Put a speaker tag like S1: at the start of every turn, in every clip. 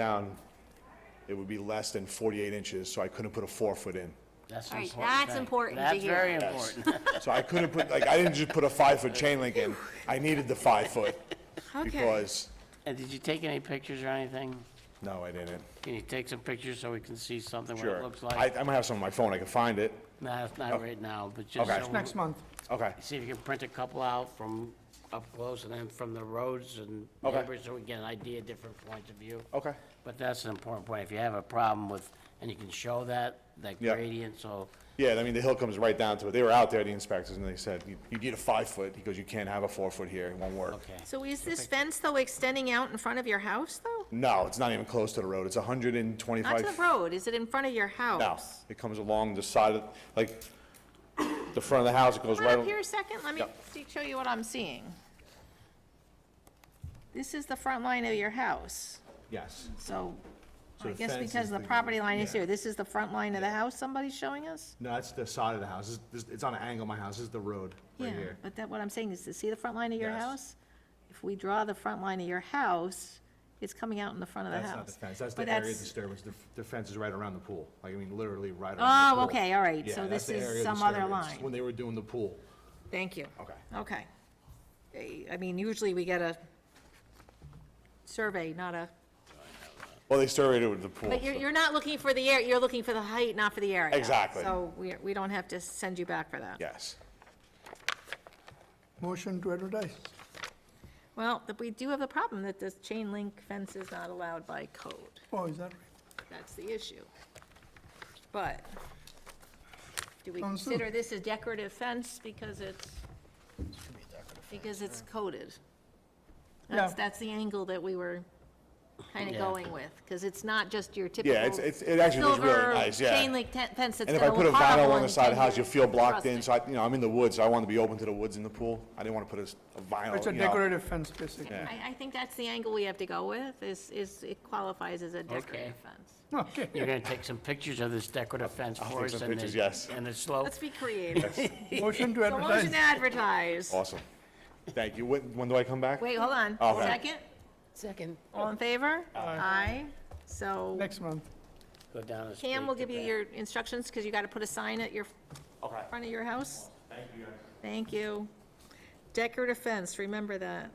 S1: down, it would be less than 48 inches, so I couldn't put a four-foot in.
S2: That's
S3: All
S2: an
S3: right,
S2: important
S3: that's
S2: thing.
S3: important to hear.
S2: That's very important.
S1: So I couldn't put, like, I didn't just put a five-foot chain link in, I needed the five-foot,
S3: Okay.
S1: because,
S2: And did you take any pictures or anything?
S1: no, I didn't.
S2: Can you take some pictures so we can see something what
S1: Sure.
S2: it looks
S1: I,
S2: like?
S1: I'm gonna have some on my phone, I can find it.
S2: Nah, it's not right now, but just
S1: Okay.
S2: so-
S4: Next month.
S1: Okay,
S2: See if you can print a couple out from up close and then from the roads and
S1: Okay.
S2: neighbors, so we get an idea, different points of view.
S1: okay,
S2: But that's an important point. If you have a problem with, and you can show that, that
S1: Yeah.
S2: gradient, so
S1: yeah, I mean, the hill comes right down to it, they were out there, the inspectors, and they said, you, you need a five-foot, he goes, you can't have a four-foot here, it won't work.
S2: Okay.
S3: So is this fence, though, extending out in front of your house, though?
S1: No, it's not even close to the road, it's hundred and
S3: Not
S1: twenty-five.
S3: to the road, is it in front of your
S1: No,
S3: house?
S1: it comes along the side of, like, the front of the house, it goes
S3: Come
S1: right.
S3: on up here a second, let me
S1: Yep.
S3: see- show you what I'm seeing. This is the front line of your house,
S1: Yes.
S3: so
S1: So
S3: I
S1: the
S3: guess
S1: fence
S3: because
S1: is
S3: the
S1: the-
S3: property line is
S1: yeah.
S3: here, this is the front line of the house somebody's showing us?
S1: No, that's the side of the house. It's- It's, it's on an angle, my house, this is the road,
S3: Yeah, Oh,
S1: right here.
S3: but that, what I'm saying is, to see the front line of your
S1: Yes.
S3: house? If we draw the front line of your house, it's coming out in the front of the house.
S1: That's not the fence, that's
S3: But
S1: the area of disturbance. The, the fence is right around the pool, like, I mean, literally right around the
S3: Oh,
S1: pool.
S3: okay, all right,
S1: Yeah,
S3: so
S1: that's
S3: this
S1: the area
S3: is
S1: of
S3: some other
S1: disturbance, When
S3: line.
S1: they were doing the pool.
S3: Thank you.
S1: Okay.
S3: Okay. They- I mean, usually we get a survey, not a,
S1: Well, they surveyed it with the pool.
S3: but you're, you're not looking for the air, you're looking for the height, not for the area.
S1: Exactly.
S3: So we, we don't have to send you back for that.
S1: Yes.
S4: Motion to advertise.
S3: Well, but we do have a problem that this chain link fence is not allowed by code.
S4: Oh, is that right?
S3: That's the issue. But do we
S4: Sounds good.
S3: consider this a decorative fence because it's, because it's coated? That's,
S4: Yeah.
S3: that's the angle that we were kind of
S2: Yeah.
S3: going with, because it's not just your typical.
S1: Yeah, it's, it's, it actually looks really
S3: silver
S1: nice, yeah.
S3: Chain link ten- fence that's
S1: And
S3: going
S1: if
S3: to
S1: I
S3: look
S1: put a
S3: horrible.
S1: vinyl on the
S3: in
S1: side of the
S3: 10
S1: house, you'll
S3: years
S1: feel blocked in,
S3: rustic.
S1: so I, you know, I'm in the woods, so I want to be open to the woods in the pool. I didn't want to put a s- a vinyl,
S4: It's a
S1: you know.
S4: decorative fence, basically.
S1: Oh, Yeah.
S3: I, I think that's the angle we have to go with, is, is it qualifies as a decorative fence.
S4: Okay.
S2: you're gonna take some pictures of this decorative fence
S1: take
S2: for us
S1: some
S2: and
S1: pictures,
S2: the,
S1: yes.
S2: and the slope.
S3: Let's be creative.
S4: Motion to
S3: So motion
S4: advertise.
S3: to advertise.
S1: Awesome. Thank you. When, when do I come back?
S3: Wait, hold on.
S1: Okay.
S3: Second?
S2: Second.
S3: All in favor? Aye. So
S4: Next month.
S2: Go down the street.
S3: Cam will
S2: to
S3: give you
S2: Brad.
S3: your instructions, because you got to put a sign at your,
S1: Okay.
S3: front of your house. Thank you. Thank you. Decorative fence, remember that.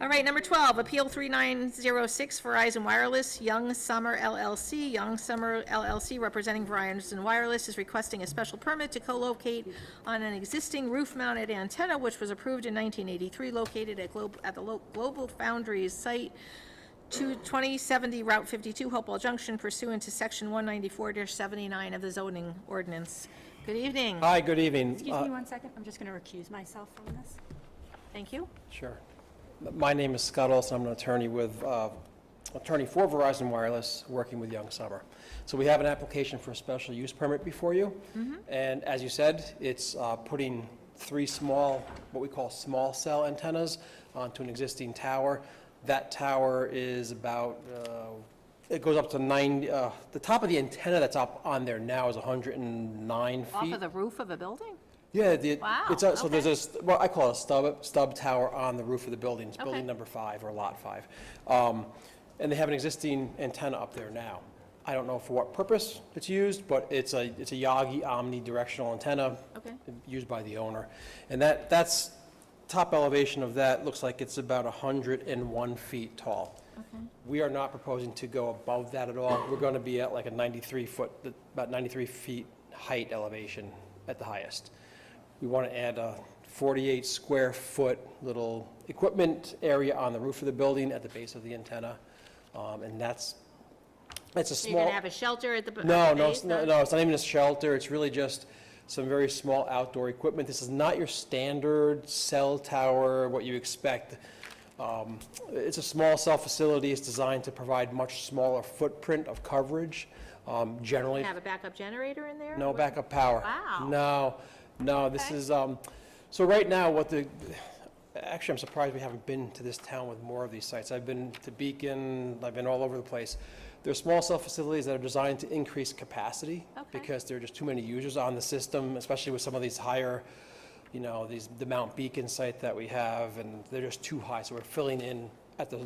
S3: All right, number 12, Appeal 3906 Verizon Wireless, Young Summer LLC. Young Summer LLC, representing Verizon Wireless, is requesting a special permit to co-locate on an existing roof-mounted antenna, which was approved in 1983, located at Glo- at the Lo- Global Foundries site, 2- 2070 Route 52, Hopewell Junction, pursuant to Section 194-79 of the zoning ordinance. Good evening.
S5: Hi, good evening.
S6: Excuse
S5: Uh,
S6: me one second, I'm just going to recuse myself from this.
S3: Thank you.
S5: Sure. My name is Scott Olson. I'm an attorney with, uh, attorney for Verizon Wireless, working with Young Summer. So we have an application for a special use permit before you.
S3: Mm-hmm.
S5: And as you said, it's uh, putting three small, what we call small cell antennas onto an existing tower. That tower is about, uh, it goes up to nine, uh, the top of the antenna that's up on there now is 109 feet.
S3: Off of the roof of a building?
S5: Yeah, the,
S3: Wow,
S5: it's, a- so
S3: okay.
S5: there's a, st- well, I call it a stub, stub tower on the roof of the building. It's
S3: Okay.
S5: building number five or lot five. Um, And they have an existing antenna up there now. I don't know for what purpose it's used, but it's a, it's a Yagi omnidirectional antenna.
S3: Okay.
S5: Used by the owner. And that, that's, top elevation of that looks like it's about 101 feet tall. We are not proposing to go above that at all. We're going to be at like a 93 foot, about 93 feet height elevation at the highest. We want to add a 48 square foot little equipment area on the roof of the building at the base of the antenna. Um, And that's, it's a
S3: So
S5: small.
S3: You're going to have a shelter at the b- at the
S5: No, no,
S3: base,
S5: it's no,
S3: huh?
S5: no, it's not even a shelter, it's really just some very small outdoor equipment. This is not your standard cell tower, what you expect. Um, It's a small cell facility, it's designed to provide much smaller footprint of coverage, um, generally.
S3: Have a backup generator in there?
S5: No
S3: What-
S5: backup power.
S3: Wow.
S5: No, no, this
S3: Okay.
S5: is, um, so right now, what the, actually, I'm surprised we haven't been to this town with more of these sites. I've been to Beacon, I've been all over the place. They're small cell facilities that are designed to increase capacity
S3: Okay.
S5: because there are just too many users on the system, especially with some of these higher, you know, these, the Mount Beacon site that we have, and they're just too high, so we're filling in at the